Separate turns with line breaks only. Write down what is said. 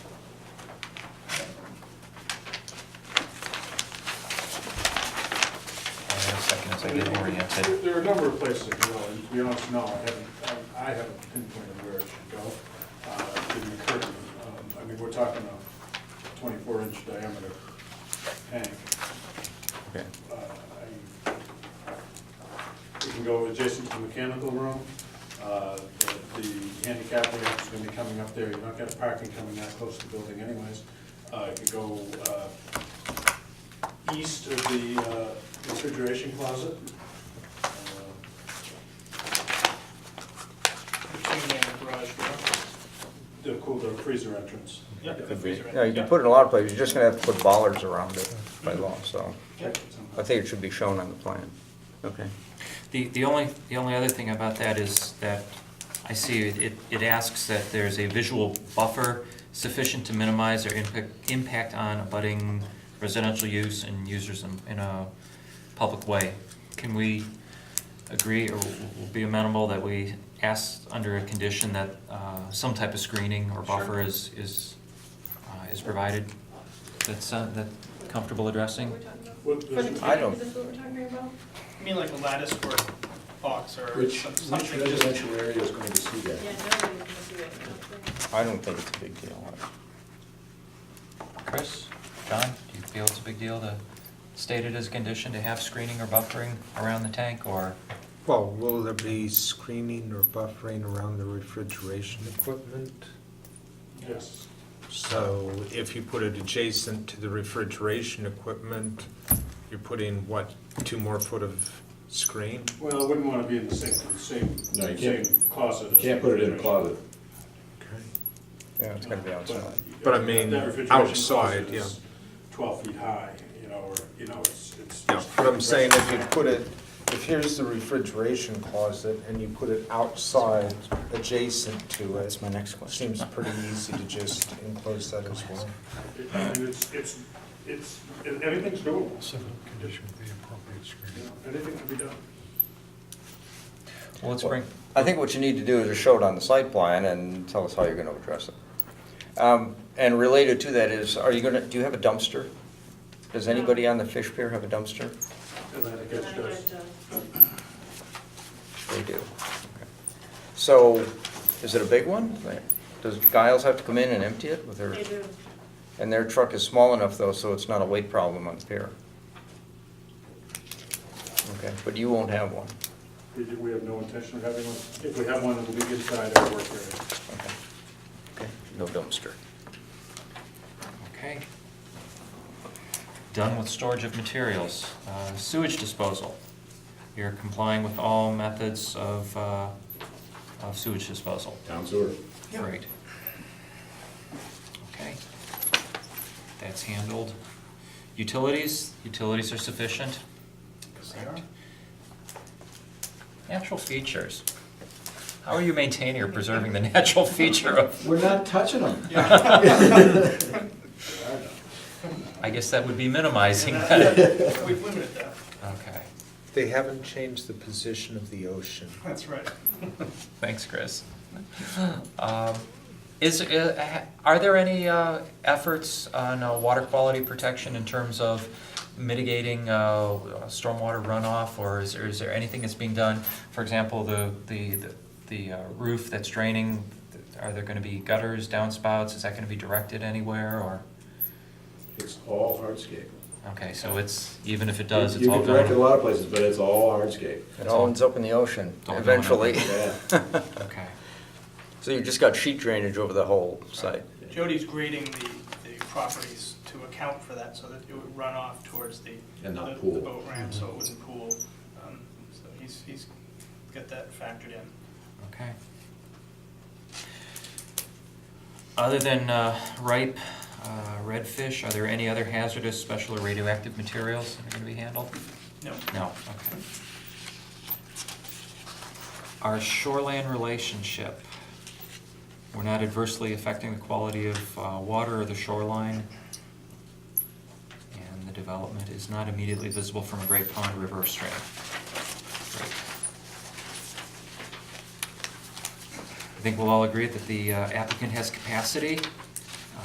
community oriented.
There- There are a number of places it could go, and to be honest, no, I haven't, I- I haven't pinpointed where it should go. Uh, Didn't occur to me. Um, I mean, we're talking a twenty-four inch diameter tank.
Okay.
Uh, I- It can go adjacent to the mechanical room. Uh, The the handicap ramp is gonna be coming up there, you're not gonna have parking coming that close to the building anyways. Uh, It could go uh, east of the uh, refrigeration closet. Uh,
between there and the garage door.
The cool, the freezer entrance.
Yeah.
Yeah.
Could be.
Freezer.
Yeah, you can put it in a lot of places, you're just gonna have to put bollards around it by law, so
Yep.
I think it should be shown on the plan. Okay.
The, the only, the only other thing about that is that I see it, it asks that there's a visual buffer sufficient to minimize their impact, impact on abutting residential use and users in, in a public way. Can we agree or w- w- be amenable that we ask under a condition that, uh, some type of screening or buffer is, is, uh, is provided? That's, uh, that comfortable addressing?
We're talking about-
What-
For the
there's-
I don't-
tank, is this what we're talking about?
I mean, like a lattice work box or
Which,
some-
which
something just,
residential area is going to see
Yeah,
that?
no, we can see it, no.
I don't think it's a big deal.
Chris, John, do you feel it's a big deal to state it as a condition to have screening or buffering around the tank, or?
Well, will there be screening or buffering around the refrigeration equipment?
Yes.
So if you put it adjacent to the refrigeration equipment, you're putting, what, two more foot of screen?
Well, I wouldn't want to be in the same, same,
No, you can't-
same closet.
You
as
can't put it in a
refrigeration.
closet.
Okay.
Yeah, it's gonna be outside.
But I mean,
That refrigeration
outside,
closet is Twelve feet high, you know, or, you know, it's, it's.
No, What I'm saying, if you put it, if here's the refrigeration closet and you put it outside adjacent to it,
my next
seems pretty easy to just enclose that as well.
It- I mean, it's, it's, it's, it- everything's doable,
civil condition with the appropriate
you
screening.
know, anything can be done.
Well, let's bring,
I think what you need to do is just show it on the site plan and tell us how you're gonna address it. Um, and related to that is, are you gonna, do you have a dumpster? Does anybody on the fish pier have a dumpster?
And then it
Then
gets
I
just,
get, uh,
They do. So, is it a big one? Does Giles have to come in and empty it with her?
They do,
And their truck is small enough though, so it's not a weight problem on the pier. Okay, but you won't have one.
we, do- we have no intention of having one, if we have one, it'll be inside our work area.
Okay. Okay. No dumpster.
okay. Done with storage of materials. Uh, Sewage disposal. You're complying with all methods of, uh, of sewage disposal.
Town sewer.
Great. Okay. That's handled. Utilities, utilities are sufficient? Correct. Natural features. How are you maintaining or preserving the natural feature of,
We're not touching them.
I guess that would be minimizing that.
we've limited that,
Okay,
They haven't changed the position of the ocean.
that's right.
thanks, Chris. Um, Is, uh, ha- are there any uh, efforts on uh, water quality protection in terms of mitigating uh, stormwater runoff? Or is there, is there anything that's being done? For example, the, the, the uh, roof that's draining, are there gonna be gutters, downspouts? Is that gonna be directed anywhere or?
It's all hardscape.
Okay, so it's, even if it does,
You-
it's all
You can direct it a
going?
lot of places, but it's all hardscape.
It all ends up in the ocean
It's all going up.
eventually.
Yeah.
Okay,
So you just got sheet drainage over the whole site.
Jody's grading the, the properties to account for that so that it would run off towards the.
And not
the-
pool. Mm-hmm.
The boat ramp, so it wouldn't pool. Um, So he's, he's got that factored in.
okay. Other than uh, ripe uh, redfish, are there any other hazardous, special or radioactive materials that are gonna be handled?
No,
No, okay. Our shoreland relationship. We're not adversely affecting the quality of uh, water or the shoreline. And the development is not immediately visible from a great pond, river, or stream. Great. I think we'll all agree that the uh, applicant has capacity